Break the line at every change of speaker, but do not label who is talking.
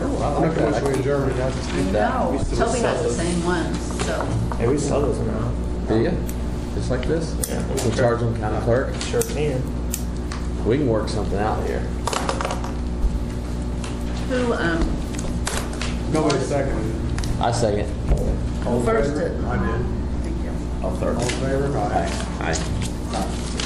I like that. I can-
Germany.
No,
We still
Toby has
sell
the
those.
same ones, so.
Yeah, we sell those now.
There you go. Just like this.
Yeah.
We'll charge them county clerk.
Sure can.
We can work something out here.
Who, um,
Nobody seconded it.
I second.
who
All in
first
favor?
did?
I did.
Thank you.
I'll
All in favor? Aye.
Aye.